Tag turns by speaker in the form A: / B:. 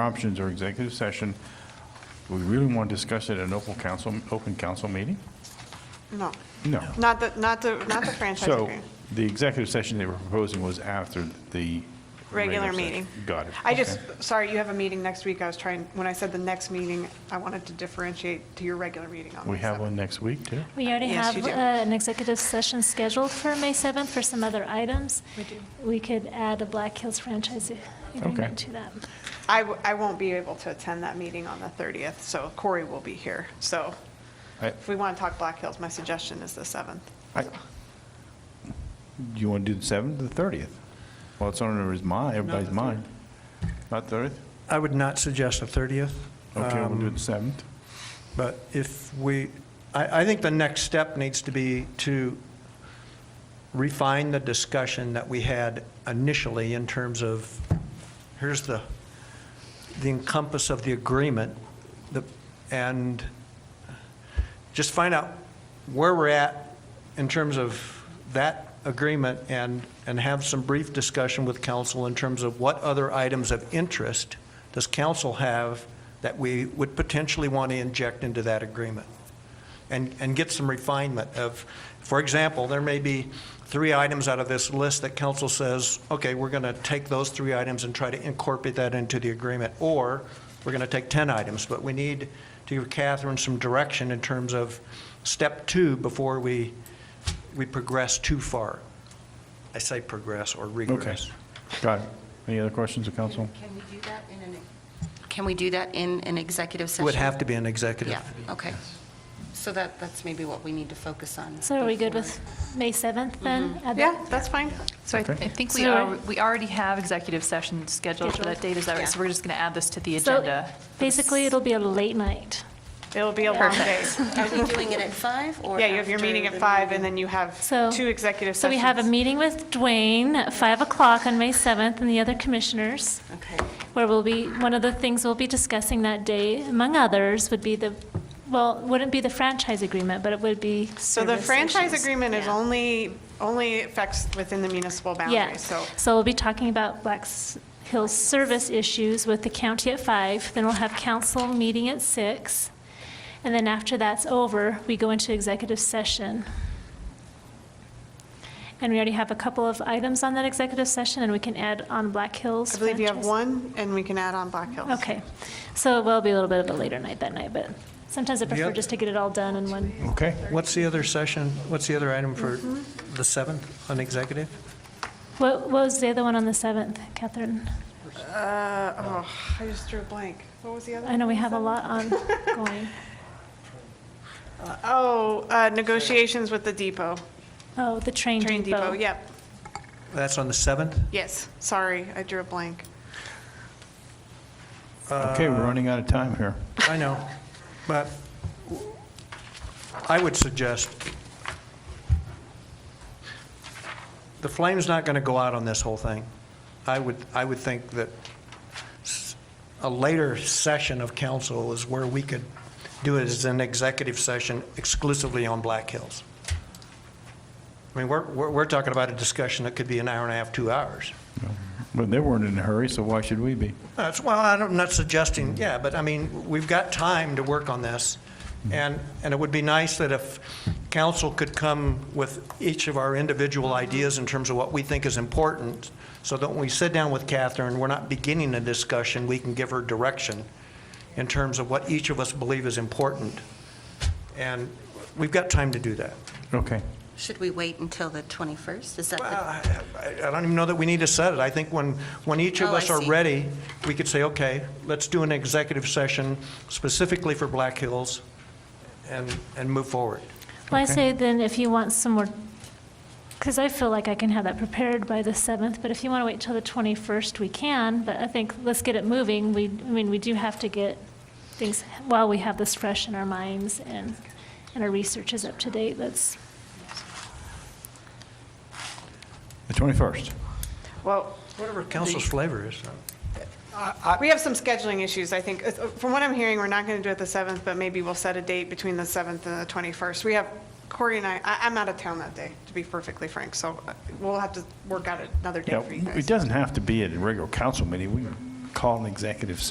A: options or executive session, we really want to discuss it at an open council, open council meeting?
B: No,
A: No.
B: not the, not the, not the franchise
A: So
B: agreement.
A: the executive session they were proposing was after the.
B: Regular
A: session.
B: meeting.
A: Got it.
B: I just,
A: Okay.
B: sorry, you have a meeting next week. I was trying, when I said the next meeting, I wanted to differentiate to your regular meeting on May
A: We have
B: 7th.
A: one next week, too?
C: We already
B: Yes,
C: have
B: you do.
C: uh, an executive session scheduled for May 7th for some other items.
B: We do.
C: We could add a Black Hills franchise
A: Okay.
C: agreement to that.
B: I, w- I won't be able to attend that meeting on the 30th, so Corey will be here. So
A: I-
B: if we want to talk Black Hills, my suggestion is the 7th.
A: I- Do you want to do the 7th or the 30th? Well, it's on everybody's mind, everybody's mind. Not 30th?
D: I would not suggest the 30th.
A: Okay, we'll do
D: um,
A: it the 7th.
D: But if we, I, I think the next step needs to be to refine the discussion that we had initially in terms of, here's the, the encompass of the agreement, the, and just find out where we're at in terms of that agreement and, and have some brief discussion with council in terms of what other items of interest does council have that we would potentially want to inject into that agreement? And, and get some refinement of, for example, there may be three items out of this list that council says, okay, we're going to take those three items and try to incorporate that into the agreement, or we're going to take 10 items, but we need to give Catherine some direction in terms of step two before we, we progress too far. I say progress or
A: Okay.
D: regress.
A: Got it. Any other questions, of council?
E: Can we do that in an, can we do that in an executive
D: It
E: session?
D: Would have to be an executive.
E: Yeah, okay. So that, that's maybe what we need to focus on.
C: So are we good with May 7th then? Add that?
B: Mm-hmm. Yeah, that's fine.
F: So I
A: Okay.
F: I think we
C: So-
F: are, we already have executive session scheduled for that
C: Scheduled.
F: date, is that right? So we're just going to add this to the
C: So
F: agenda.
C: basically, it'll be a late night.
B: It'll be a long day.
E: Are we doing it at five or?
B: Yeah, you have your
E: after
B: meeting at
E: the
B: 5
E: meeting?
B: and then you have
C: So.
B: two executive sessions.
C: So we have a meeting with Dwayne at 5 o'clock on May 7th and the other commissioners,
E: Okay,
C: where we'll be, one of the things we'll be discussing that day, among others, would be the, well, wouldn't be the franchise agreement, but it would be
B: So the
C: service
B: franchise
C: issues.
B: agreement is
C: Yeah.
B: only, only affects within the municipal
C: Yeah,
B: boundaries, so.
C: so we'll be talking about Black S- Hills service issues with the county at five, then we'll have council meeting at six, and then after that's over, we go into executive session. And we already have a couple of items on that executive session, and we can add on Black Hills.
B: I believe you have
C: franchise.
B: one, and we can add on Black Hills.
C: Okay, so it will be a little bit of a later night that night, but sometimes I prefer
D: Yep.
C: just to get it all done in one.
A: Okay.
D: What's the other session, what's the other item for the 7th on executive?
C: What what was the other one on the seventh, Catherine?
B: Uh, oh, I just drew a blank. What was the other?
C: I know
B: one?
C: we have a lot on going.
B: Oh, uh, negotiations with the depot,
C: Oh, the train
B: train depot,
C: depot.
B: yep,
D: That's on the 7th?
B: yes, sorry, I drew a blank.
A: Okay, we're running out of time here.
D: I know, but I would suggest, the flame's not going to go out on this whole thing. I would, I would think that s- a later session of council is where we could do it as an executive session exclusively on Black Hills. I mean, we're, we're we're talking about a discussion that could be an hour and a half, two hours.
A: But they weren't in a hurry, so why should we be?
D: That's, well, I don't- I'm not suggesting, yeah, but I mean, we've got time to work on this. And, and it would be nice that if council could come with each of our individual ideas in terms of what we think is important, so that when we sit down with Catherine, we're not beginning a discussion, we can give her direction in terms of what each of us believe is important. And we've got time to do that.
A: Okay.
E: should we wait until the 21st? Is that
D: Well,
E: the?
D: I I- I don't even know that we need to set it. I think when, when each of
E: Oh, I
D: us are
E: see.
D: ready, we could say, okay, let's do an executive session specifically for Black Hills and, and move forward.
C: Well, I
A: Okay.
C: say then if you want some more, because I feel like I can have that prepared by the 7th, but if you want to wait till the 21st, we can, but I think let's get it moving. We, I mean, we do have to get things, while we have this fresh in our minds and, and our research is up to date, let's,
A: The 21st.
B: Well,
D: Whatever council's flavor is.
B: we have some scheduling issues, I think. Uh, From what I'm hearing, we're not going to do it the 7th, but maybe we'll set a date between the 7th and the 21st. We have, Corey and I, I- I'm out of town that day, to be perfectly frank, so uh, we'll have to work out another
A: Yeah,
B: date for you guys.
A: it doesn't have to be at a regular council meeting. We can call an executive session